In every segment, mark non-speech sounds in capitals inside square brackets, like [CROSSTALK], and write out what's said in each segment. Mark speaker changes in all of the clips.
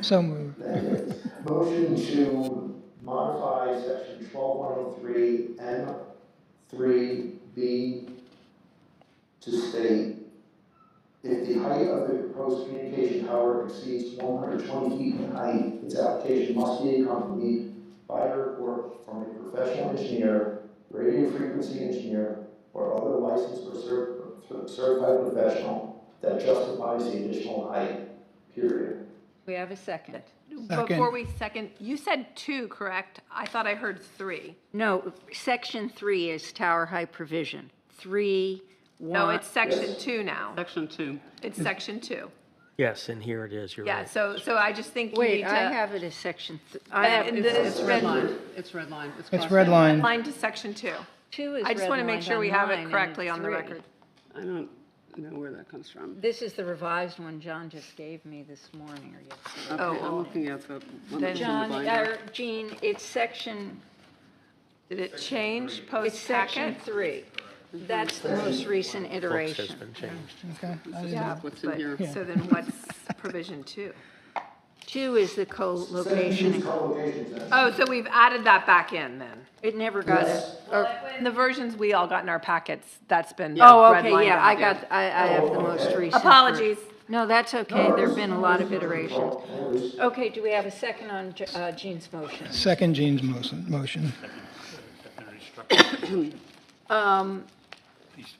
Speaker 1: So moved.
Speaker 2: Motion to modify section twelve one oh three M three B to state if the height of the proposed communication tower exceeds one hundred twenty feet in height, its application must be accompanied by a report from a professional engineer, radio frequency engineer, or other licensed or cer- certified professional that justifies the additional height, period.
Speaker 3: We have a second.
Speaker 4: Before we second, you said two, correct? I thought I heard three.
Speaker 3: No, section three is tower height provision. Three, one.
Speaker 4: No, it's section two now.
Speaker 5: Section two.
Speaker 4: It's section two.
Speaker 6: Yes, and here it is, you're
Speaker 4: Yeah,
Speaker 6: right.
Speaker 4: so, so I just think you need
Speaker 3: Wait,
Speaker 4: to.
Speaker 3: I have it as section, th- I have,
Speaker 4: And then it's red line,
Speaker 5: It's red line.
Speaker 1: It's
Speaker 5: crossed
Speaker 1: red
Speaker 5: out.
Speaker 1: line.
Speaker 4: line to section two.
Speaker 3: two is
Speaker 4: I just want to make
Speaker 3: redlined
Speaker 4: sure we have
Speaker 3: mine,
Speaker 4: it
Speaker 3: and
Speaker 4: correctly
Speaker 3: it's
Speaker 4: on the
Speaker 3: three.
Speaker 4: record.
Speaker 5: I don't know where that comes from.
Speaker 3: This is the revised one John just gave me this morning or yesterday.
Speaker 5: Okay, I'm looking at the one that's in the
Speaker 3: John,
Speaker 5: binder.
Speaker 3: or Jean, it's section,
Speaker 4: Did it change
Speaker 3: it's section
Speaker 4: post-packet?
Speaker 3: three. That's the most recent
Speaker 6: Books has
Speaker 3: iteration.
Speaker 6: been changed.
Speaker 1: Okay. I didn't-
Speaker 4: Yeah,
Speaker 5: What's in
Speaker 4: but,
Speaker 5: here?
Speaker 4: so then what's provision two?
Speaker 3: Two is the co-location. and-
Speaker 4: Oh, so we've added that back in then?
Speaker 3: It never got it.
Speaker 4: In the versions we all got in our packets, that's been
Speaker 3: Oh,
Speaker 4: redlined
Speaker 3: okay, Oh. yeah, I
Speaker 4: out.
Speaker 3: got, I, I have the most recent.
Speaker 4: Apologies.
Speaker 3: No, that's okay, there've been a lot of iterations. Okay, do we have a second on Je- uh, Jean's motion?
Speaker 1: Second Jean's motion, motion.
Speaker 3: [COUGHS]
Speaker 7: These,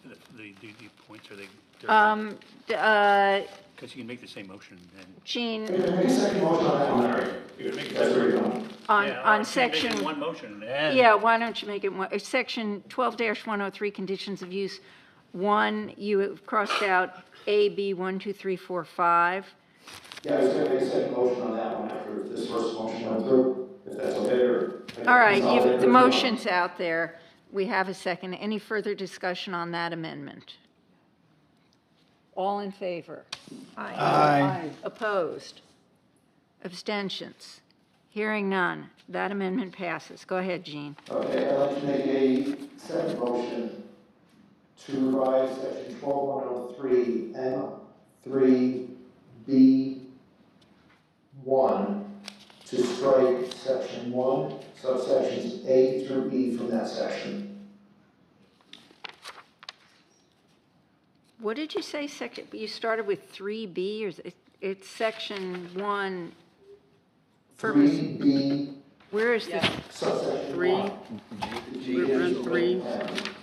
Speaker 7: the, the, the points, are they,
Speaker 3: Um, d- uh,
Speaker 7: because you can make the same motion and.
Speaker 3: Jean,
Speaker 7: You can make
Speaker 3: on, on section,
Speaker 7: One motion and.
Speaker 3: yeah, why don't you make it, one- uh, section 12-103, conditions of use, one, you have crossed out A, B, one, two, three, four, five.
Speaker 2: Yeah, I was gonna make a second motion on that one after this first motion went through, if that's okay, or.
Speaker 3: All right, you, the motion's out there, we have a second. Any further discussion on that amendment? All in favor?
Speaker 1: Aye.
Speaker 3: Opposed? Abstentions? Hearing none. That amendment passes. Go ahead, Jean.
Speaker 2: Okay, I'd like to make a second motion to revise section twelve one oh three M three B one to strike section one, subsections A through B from that section.
Speaker 3: What did you say, second, you started with 3B, or is it- it's section 1, purpose,
Speaker 2: Three B
Speaker 3: where is the,
Speaker 2: subsection
Speaker 5: Three.
Speaker 2: one.
Speaker 5: We're in three.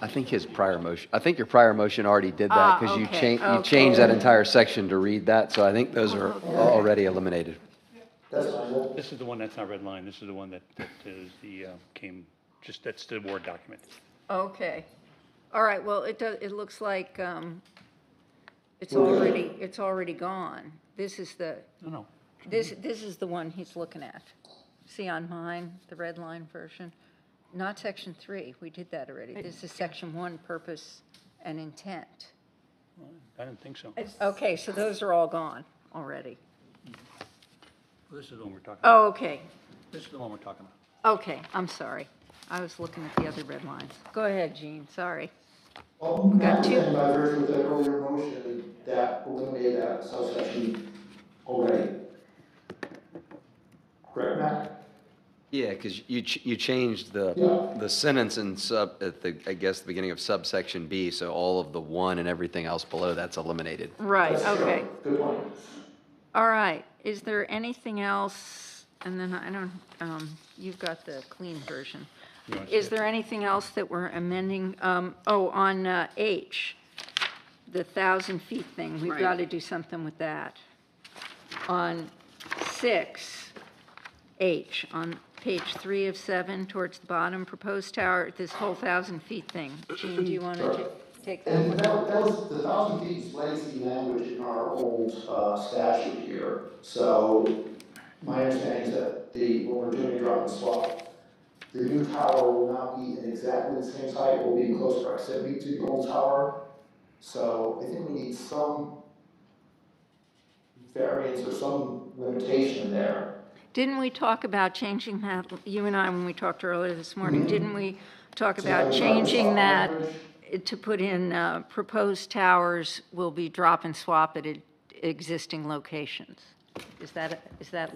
Speaker 8: I think his prior motion, I think your prior motion already did that,
Speaker 3: Ah,
Speaker 8: because you
Speaker 3: okay,
Speaker 8: changed, you
Speaker 3: okay.
Speaker 8: changed that entire section to read that, so I think those are already eliminated.
Speaker 2: That's fine, that-
Speaker 7: This is the one that's not red line. This is the one that, that is the, uh, came, just, that's the Word document.
Speaker 3: okay. All right, well, it does, it looks like um, it's already, it's already gone. This is the,
Speaker 7: No, no.
Speaker 3: this, this is the one he's looking at. See on mine, the red line version? Not section 3, we did that already. This is section 1, purpose and intent.
Speaker 7: I didn't think so.
Speaker 3: Okay, so those are all gone already.
Speaker 7: This is the one we're talking about.
Speaker 3: Oh, okay,
Speaker 7: This is the one we're talking about.
Speaker 3: okay, I'm sorry. I was looking at the other red lines. Go ahead, Jean, sorry.
Speaker 2: Well,
Speaker 3: Got two.
Speaker 2: and by virtue of that earlier motion, that eliminated that subsection already. Correct, Matt?
Speaker 8: Yeah, because you, ch- you changed the,
Speaker 2: Yeah.
Speaker 8: the sentence in sub, at the, I guess, the beginning of subsection B, so all of the one and everything else below, that's eliminated.
Speaker 3: Right,
Speaker 2: That's true.
Speaker 3: okay.
Speaker 2: Good point.
Speaker 3: All right, is there anything else? And then I don't, um, you've got the clean version.
Speaker 7: wanna see
Speaker 3: Is
Speaker 7: it?
Speaker 3: there anything else that we're amending? Um, oh, on uh, H, the thousand feet thing, we've
Speaker 5: Right.
Speaker 3: got to do something with that. On six, H, on page three of seven, towards the bottom, proposed tower, this whole thousand feet thing. Jean, do you want to take that
Speaker 2: And
Speaker 3: one?
Speaker 2: that, that was, the thousand feet is lazy language in our old uh, statute here. So my understanding is that the, when we're doing a drop and swap, the new tower will not be in exactly the same height, will be in close proximity to the old tower. So I think we need some variance or some limitation there.
Speaker 3: Didn't we talk about changing that, you and I, when we talked earlier this morning, didn't we talk
Speaker 2: So that
Speaker 3: about
Speaker 2: was drop and
Speaker 3: changing
Speaker 2: swap
Speaker 3: that
Speaker 2: language.
Speaker 3: to put in uh, proposed towers will be drop and swap at e- existing locations? Is that, is that